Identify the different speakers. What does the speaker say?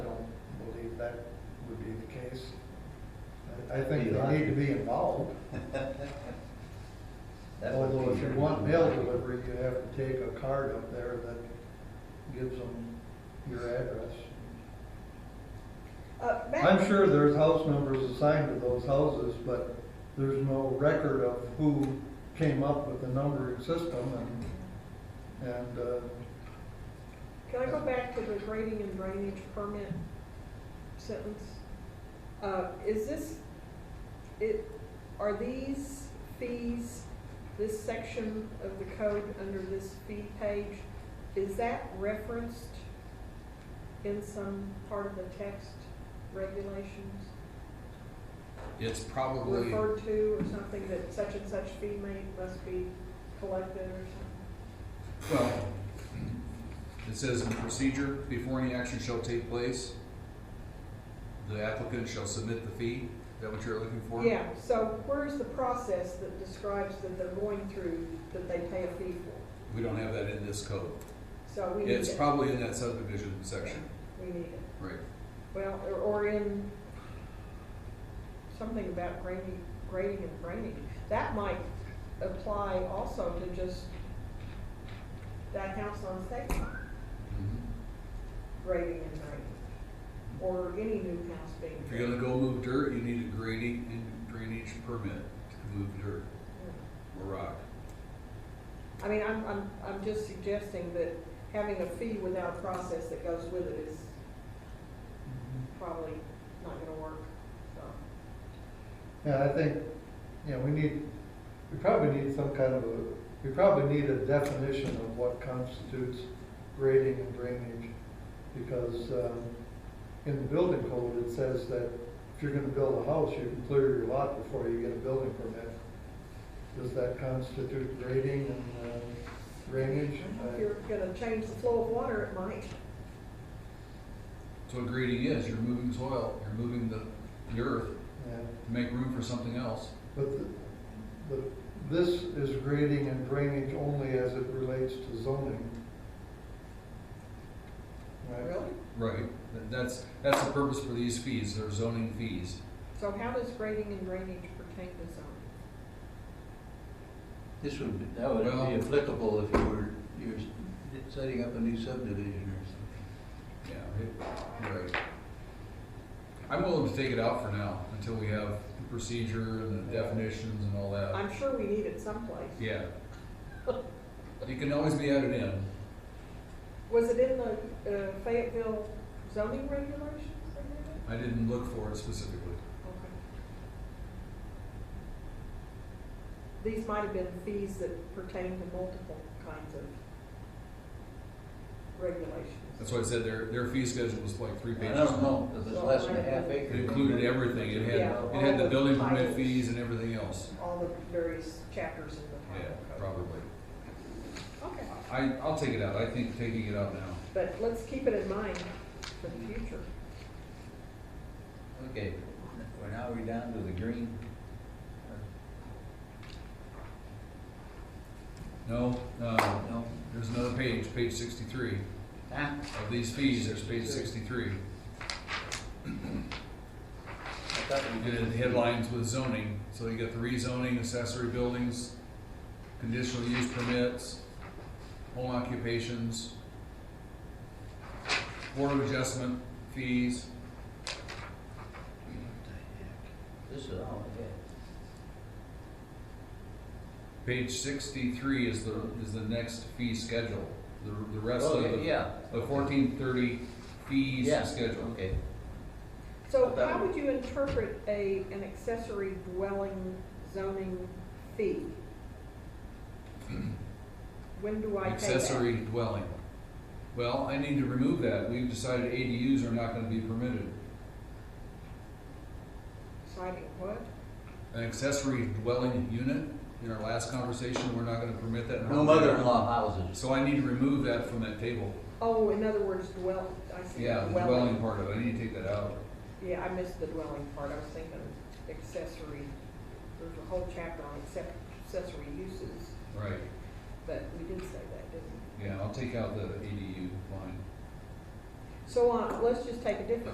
Speaker 1: it's, I I think they need to be involved.
Speaker 2: That would
Speaker 1: Although
Speaker 2: be
Speaker 1: if you
Speaker 2: your-
Speaker 1: want mail delivery, you have to take a card up there that gives them your address.
Speaker 3: Uh, Matt,
Speaker 1: I'm sure there's house numbers assigned to those houses, but there's no record of who came up with the numbering system and, and, uh,
Speaker 3: Can I go back to the grading and drainage permit sentence? Uh, is this, it, are these fees, this section of the code under this fee page, is that referenced in some part of the text regulations?
Speaker 4: It's probably,
Speaker 3: Referred to or something that such and such fee may, must be collected or something?
Speaker 4: well, it says in procedure, before any action shall take place, the applicant shall submit the fee. Is that what you're looking for?
Speaker 3: Yeah, so where's the process that describes that they're going through, that they pay a fee for?
Speaker 4: We don't have that in this code.
Speaker 3: So we need
Speaker 4: It's
Speaker 3: it.
Speaker 4: probably in that subdivision section,
Speaker 3: We need it.
Speaker 4: right?
Speaker 3: Well, or, or in something about grading, grading and draining. That might apply also to just that house on State Farm,
Speaker 4: Mhm.
Speaker 3: grading and draining. Or any new house being
Speaker 4: If you're
Speaker 3: built.
Speaker 4: gonna go move dirt, you need a grading and drainage permit to move dirt or rock.
Speaker 3: I mean, I'm, I'm, I'm just suggesting that having a fee without a process that goes with it is probably not gonna work, so.
Speaker 1: Yeah, I think, you know, we need, we probably need some kind of a, we probably need a definition of what constitutes grading and drainage. Because, um, in the building code, it says that if you're gonna build a house, you can clear your lot before you get a building permit. Does that constitute grading and, um, drainage?
Speaker 3: If you're gonna change the flow of water, it might.
Speaker 4: So what grading is, you're moving soil, you're moving the, the earth
Speaker 1: Yeah.
Speaker 4: to make room for something else.
Speaker 1: But the, the, this is grading and drainage only as it relates to zoning. Right?
Speaker 4: Right. That- That's, that's the purpose for these fees, they're zoning fees.
Speaker 3: So how does grading and drainage pertain to zoning?
Speaker 2: This would, be- that would
Speaker 4: Well-
Speaker 2: be applicable if you were, you're setting up a new subdivision or something.
Speaker 4: Yeah, it- right. I'm willing to take it out for now, until we have the procedure and the definitions and all that.
Speaker 3: I'm sure we need it someplace.
Speaker 4: Uh, Yeah. It can always be added in.
Speaker 3: Was it in the uh, Fayetteville zoning regulations or anything?
Speaker 4: I didn't look for it specifically.
Speaker 3: Okay. These might have been fees that pertain to multiple kinds of regulations.
Speaker 4: That's why I said their, their fee schedule was like three
Speaker 2: I
Speaker 4: pages.
Speaker 2: don't
Speaker 4: long.
Speaker 2: know, if it's less than a half
Speaker 4: It
Speaker 2: acre.
Speaker 4: included everything. It had,
Speaker 3: Yeah.
Speaker 4: it had the building permit fees and everything else.
Speaker 3: All the various chapters in the
Speaker 4: Yeah,
Speaker 3: title code.
Speaker 4: probably.
Speaker 3: Okay,
Speaker 4: I, I'll take it out. I think taking it out now.
Speaker 3: but let's keep it in mind for the future.
Speaker 2: Okay, well, now we're down to the green.
Speaker 4: No, um, no,
Speaker 2: No,
Speaker 4: there's another page, page sixty-three.
Speaker 2: ah,
Speaker 4: Of these fees, there's page sixty-three.
Speaker 2: I thought we
Speaker 4: And
Speaker 2: did.
Speaker 4: then the headlines with zoning, so you got the rezoning, accessory buildings, conditional use permits, home occupations, board of adjustment fees,
Speaker 2: This is all I had.
Speaker 4: page sixty-three is the, is the next fee schedule. The, the rest of
Speaker 2: Okay,
Speaker 4: the,
Speaker 2: Oh, yeah.
Speaker 4: the fourteen thirty fees
Speaker 2: Yeah,
Speaker 4: schedule.
Speaker 2: Okay.
Speaker 3: So
Speaker 2: But that
Speaker 3: how
Speaker 2: would-
Speaker 3: would you interpret a, an accessory dwelling zoning fee? When do I pay that?
Speaker 4: Accessory dwelling. Well, I need to remove that. We've decided ADUs are not gonna be permitted.
Speaker 3: Citing what?
Speaker 4: an accessory dwelling unit. In our last conversation, we're not gonna permit that. in
Speaker 2: No
Speaker 4: our-
Speaker 2: mother-in-law houses.
Speaker 4: So I need to remove that from that table.
Speaker 3: Oh, in other words, dwell, I see
Speaker 4: Yeah, the dwelling
Speaker 3: dwelling.
Speaker 4: part of it, I need to take that out.
Speaker 3: Yeah, I missed the dwelling part, I was thinking accessory, there's a whole chapter on accep- accessory uses,
Speaker 4: Right,
Speaker 3: but we did say that, didn't we?
Speaker 4: yeah, I'll take out the ADU line.
Speaker 3: So, uh, let's just take a different